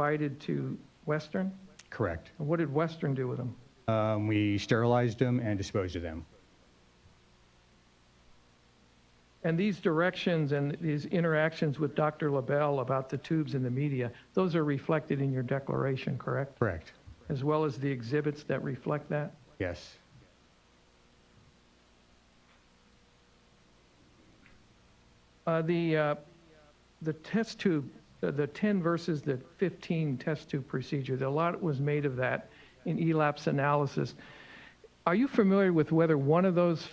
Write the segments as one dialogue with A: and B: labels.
A: provided to Western?
B: Correct.
A: And What did Western do with them?
B: Um, We sterilized them and disposed of them.
A: And these directions and these interactions with Dr. LaBelle about the tubes and the media, those are reflected in your declaration, correct?
B: Correct.
A: As well as the exhibits that reflect that?
B: Yes.
A: Uh, The, uh, the test tube, uh, the 10 versus the 15 test tube procedure, a lot was made of that in E ELAP's analysis. Are you familiar with whether one of those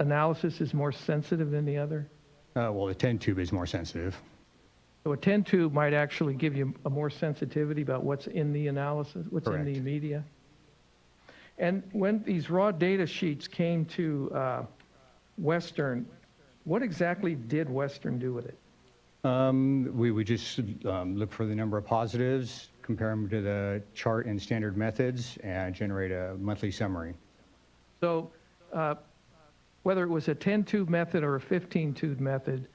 A: analysis is more sensitive than the other?
B: Uh, Well, the 10 tube is more sensitive.
A: So a 10 tube might actually give you a more sensitivity about what's in the analysis, what's in the
B: Correct.
A: media. And when these raw data sheets came to uh, Western, what exactly did Western do with it?
B: Um, We would just um, look for the number of positives, compare them to the chart and standard methods, and generate a monthly summary.
A: So uh, whether it was a 10 tube method or a 15 tube method,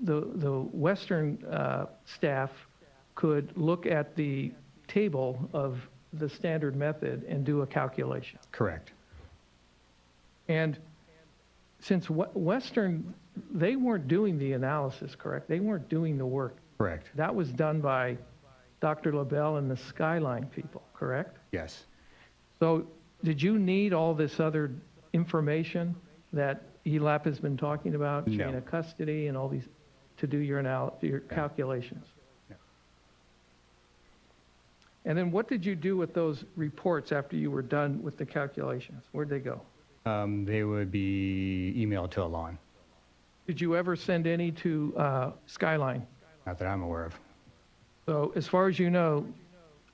A: the, the Western uh, staff could look at the table of the standard method and do a calculation.
B: Correct.
A: And since Wes- Western, they weren't doing the analysis, correct? They weren't doing the work.
B: Correct.
A: That was done by Dr. LaBelle and the Skyline people, correct?
B: Yes.
A: So did you need all this other information that E ELAP has been talking about?
B: No.
A: Chain of custody and all these, to do your anal, your calculations?
B: No.
A: And then what did you do with those reports after you were done with the calculations? Where'd they go?
B: Um, They would be emailed to Alon,
A: Did you ever send any to uh, Skyline?
B: not that I'm aware of.
A: So as far as you know,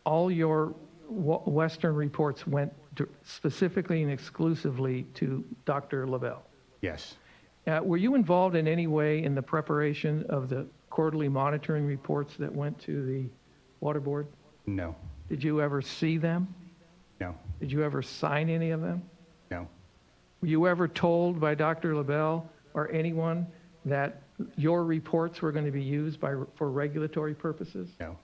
A: all your w- Western reports went d- specifically and exclusively to Dr. LaBelle.
B: Yes.
A: Uh, Were you involved in any way in the preparation of the quarterly monitoring reports that went to the Water Board?
B: No.
A: Did you ever see them?
B: No.
A: Did you ever sign any of them?
B: No.
A: Were you ever told by Dr. LaBelle or anyone that your reports were going to be used by, for regulatory purposes?
B: No.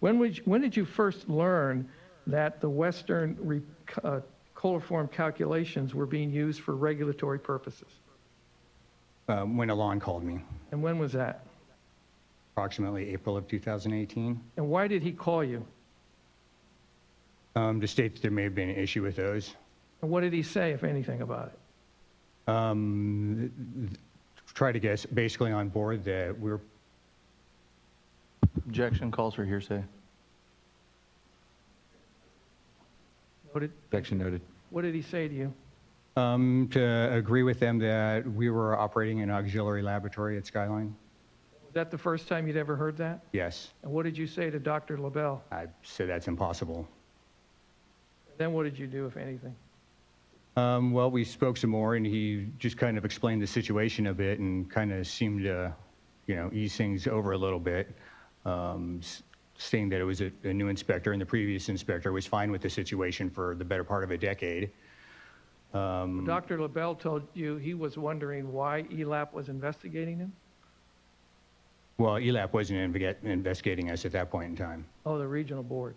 A: When, would you, when did you first learn that the Western re, uh, coliform calculations were being used for regulatory purposes?
B: Um, When Alon called me,
A: And when was that?
B: approximately April of 2018,
A: And why did he call you?
B: um, to state that there may have been an issue with those.
A: And what did he say, if anything, about it?
B: um, try to get us basically on board that we're,
C: Objection calls for hearsay.
A: What did,
C: Objection noted.
A: what did he say to you?
B: um, to agree with them that we were operating an auxiliary laboratory at Skyline?
A: Was that the first time you'd ever heard that?
B: Yes.
A: And what did you say to Dr. LaBelle?
B: I said that's impossible.
A: Then what did you do, if anything?
B: Um, well, we spoke some more and he just kind of explained the situation a bit and kind of seemed to, you know, ease things over a little bit. Um, s- saying that it was a, a new inspector and the previous inspector was fine with the situation for the better part of a decade.
A: Dr. LaBelle told you he was wondering why ELAP was investigating him?
B: Well, E ELAP wasn't inve- investigating us at that point in time.
A: Oh, the regional board.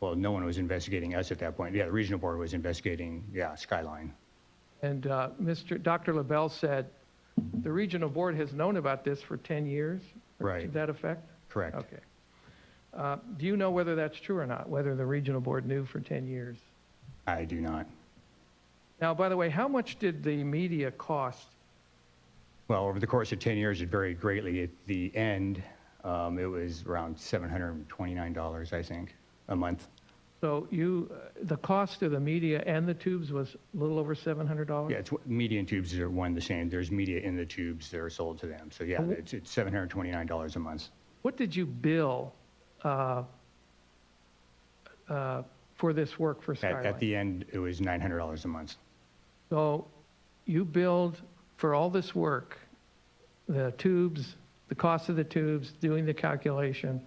B: well, no one was investigating us at that point. Yeah, the regional board was investigating, yeah, Skyline.
A: And uh, Mr., Dr. LaBelle said, the regional board has known about this for 10 years? or To
B: Right.
A: that effect?
B: Correct.
A: Okay. Uh, Do you know whether that's true or not, whether the regional board knew for 10 years?
B: I do not.
A: Now, by the way, how much did the media cost?
B: Well, over the course of 10 years, it varied greatly. At the end, um, it was around $729, I think, a month.
A: So you, uh, the cost of the media and the tubes was a little over $700?
B: Yeah, it's what- media and tubes are one and the same. There's media in the tubes that are sold to them. So yeah, it's, it's $729 a month.
A: What did you bill uh, uh, for this work for
B: At, at
A: Skyline?
B: the end, it was $900 a month.
A: So you billed for all this work, the tubes, the cost of the tubes, doing the calculation,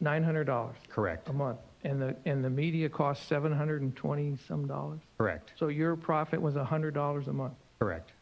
A: $900
B: Correct.
A: a month. And the, and the media cost 720 some dollars?
B: Correct.
A: So your profit was $100 a month.
B: Correct.